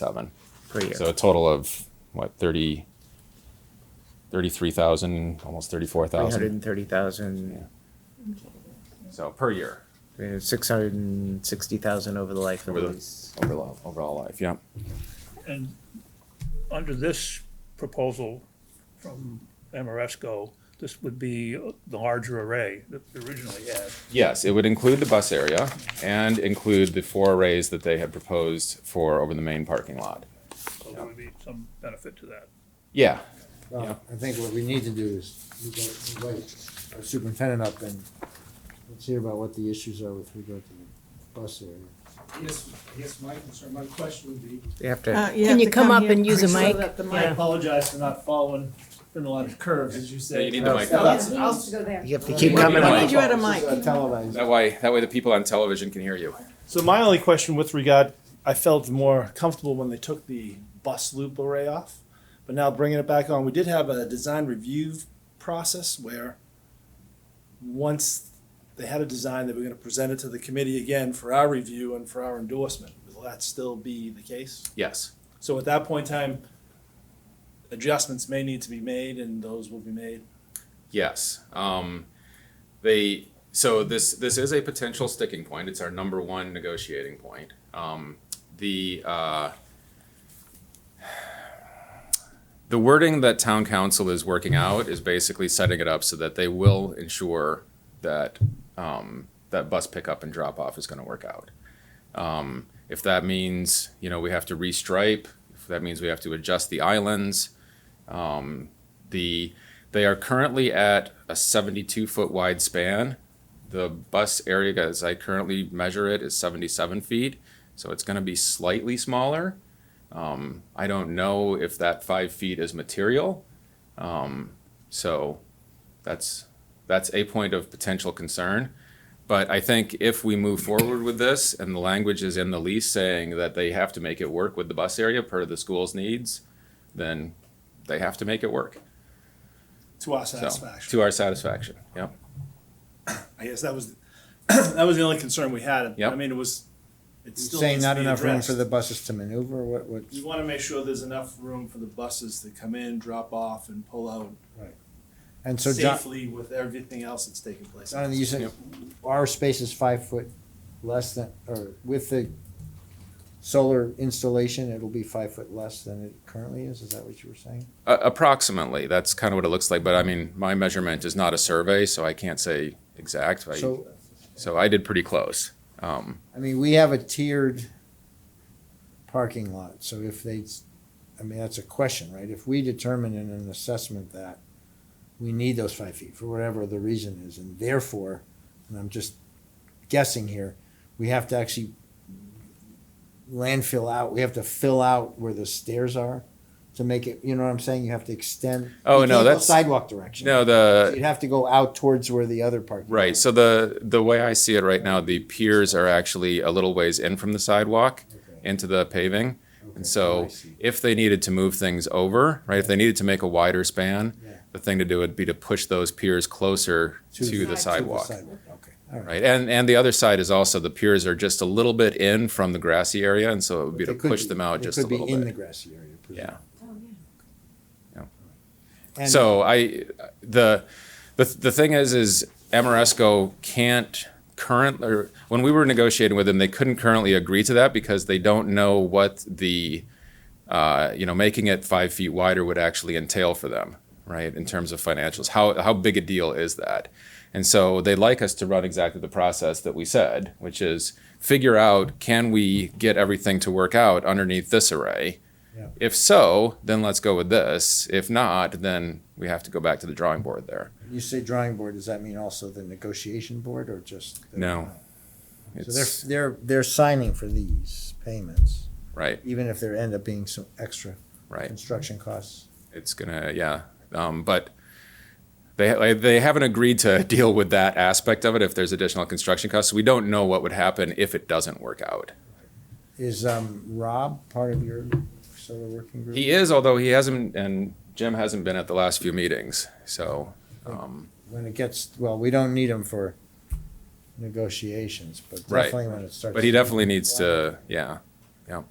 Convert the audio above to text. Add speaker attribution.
Speaker 1: seven.
Speaker 2: per year.
Speaker 1: So a total of what, 30, 33,000, almost 34,000.
Speaker 2: 330,000,
Speaker 1: So per year.
Speaker 2: uh, 660,000 over the life of
Speaker 1: Over
Speaker 2: the
Speaker 1: the-
Speaker 2: lease.
Speaker 1: Overall, overall life, yeah.
Speaker 3: And under this proposal from MRESCO, this would be the larger array that we originally had.
Speaker 1: Yes, it would include the bus area and include the four arrays that they had proposed for over the main parking lot.
Speaker 3: So there would be some benefit to that.
Speaker 1: Yeah, Yeah.
Speaker 4: Well, I think what we need to do is we go- invite our superintendent up and let's hear about what the issues are with regard to the bus area.
Speaker 5: Yes, yes, my concern, my question would be,
Speaker 2: You have to.
Speaker 6: Uh,
Speaker 7: Can
Speaker 6: have
Speaker 7: you
Speaker 6: to
Speaker 7: come up
Speaker 6: here.
Speaker 7: and use a
Speaker 5: Slow
Speaker 7: mic?
Speaker 5: that the mic. I apologize for not following, been a lot of curves, as you say.
Speaker 1: you need the mic.
Speaker 5: No, that's-
Speaker 6: Yeah, he
Speaker 5: I'll-
Speaker 6: needs to go there.
Speaker 2: You have to keep
Speaker 1: Coming
Speaker 2: coming
Speaker 6: We
Speaker 1: up.
Speaker 2: up.
Speaker 6: need you at a
Speaker 4: This
Speaker 6: mic.
Speaker 4: is, uh, Televised.
Speaker 1: that way, that way the people on television can hear you.
Speaker 5: So my only question with regard, I felt more comfortable when they took the bus loop array off, but now bringing it back on, we did have a design review process where once they had a design, they were gonna present it to the committee again for our review and for our endorsement. Will that still be the case?
Speaker 1: Yes,
Speaker 5: So at that point in time, adjustments may need to be made and those will be made.
Speaker 1: yes. Um, they, so this, this is a potential sticking point. It's our number one negotiating point. Um, the, uh, the wording that town council is working out is basically setting it up so that they will ensure that, um, that bus pickup and drop off is gonna work out. Um, if that means, you know, we have to restripe, if that means we have to adjust the islands, um, the, they are currently at a seventy-two foot wide span. The bus area, as I currently measure it, is seventy-seven feet, so it's gonna be slightly smaller. Um, I don't know if that five feet is material. Um, so that's, that's a point of potential concern. But I think if we move forward with this and the language is in the lease saying that they have to make it work with the bus area per the school's needs, then they have to make it work.
Speaker 5: To our
Speaker 1: So,
Speaker 5: satisfaction.
Speaker 1: to our satisfaction, yep.
Speaker 5: I guess that was, that was the only concern we had.
Speaker 1: Yep.
Speaker 5: I mean, it was, it
Speaker 4: You're
Speaker 5: still
Speaker 4: Saying
Speaker 5: needs
Speaker 4: not
Speaker 5: to be
Speaker 4: enough room for the
Speaker 5: addressed.
Speaker 4: buses to maneuver, what, what?
Speaker 5: We want to make sure there's enough room for the buses to come in, drop off, and pull out
Speaker 4: And so John,
Speaker 5: safely with everything else that's taking place.
Speaker 4: John, you said our space is five foot less than, or with the solar installation, it'll be five foot less than it currently is, is that what you were saying?
Speaker 1: Uh, approximately, that's kind of what it looks like, but I mean, my measurement is not a survey, so I can't say exact. I-
Speaker 4: So
Speaker 1: So I did pretty close. Um,
Speaker 4: I mean, we have a tiered parking lot, so if they, I mean, that's a question, right? If we determine in an assessment that we need those five feet for whatever the reason is, and therefore, and I'm just guessing here, we have to actually landfill out, we have to fill out where the stairs are to make it, you know what I'm saying? You have to extend.
Speaker 1: Oh,
Speaker 4: you
Speaker 1: no,
Speaker 4: can't go
Speaker 1: that's-
Speaker 4: Sidewalk direction.
Speaker 1: No,
Speaker 4: So
Speaker 1: the,
Speaker 4: You'd have to go out towards where the other parking.
Speaker 1: Right. So the the way I see it right now, the piers are actually a little ways in from the sidewalk
Speaker 4: Okay.
Speaker 1: into the paving.
Speaker 4: Okay, Oh,
Speaker 1: And so
Speaker 4: I see.
Speaker 1: if they needed to move things over, right, if they needed to make a wider span,
Speaker 4: Yeah.
Speaker 1: the thing to do would be to push those piers closer
Speaker 4: To the-
Speaker 1: to the sidewalk.
Speaker 4: Okay, all right.
Speaker 1: Right. And and the other side is also the piers are just a little bit in from the grassy area. And so it would be to
Speaker 4: They could
Speaker 1: push
Speaker 4: be-
Speaker 1: them out
Speaker 4: they
Speaker 1: just a little
Speaker 4: Could be in the
Speaker 1: bit.
Speaker 4: grassy area.
Speaker 1: Yeah.
Speaker 4: And-
Speaker 1: So I, the, the, the thing is, is Amoresco can't current, or when we were negotiating with them, they couldn't currently agree to that because they don't know what the, uh, you know, making it five feet wider would actually entail for them, right? In terms of financials, how, how big a deal is that? And so they like us to run exactly the process that we said, which is figure out, can we get everything to work out underneath this array? If so, then let's go with this. If not, then we have to go back to the drawing board there.
Speaker 4: When You say drawing board, does that mean also the negotiation board or just? the-
Speaker 1: No.
Speaker 4: So
Speaker 1: It's,
Speaker 4: they're, they're, they're signing for these payments,
Speaker 1: right,
Speaker 4: even if there end up being some extra
Speaker 1: right.
Speaker 4: construction costs.
Speaker 1: It's gonna, yeah. Um, but they, like, they haven't agreed to deal with that aspect of it if there's additional construction costs. We don't know what would happen if it doesn't work out.
Speaker 4: Is, um, Rob part of your solar working group?
Speaker 1: He is, although he hasn't, and Jim hasn't been at the last few meetings, so, um,
Speaker 4: When it gets, well, we don't need him for negotiations, but
Speaker 1: Right.
Speaker 4: definitely when it starts.
Speaker 1: but he definitely needs to, yeah, yeah.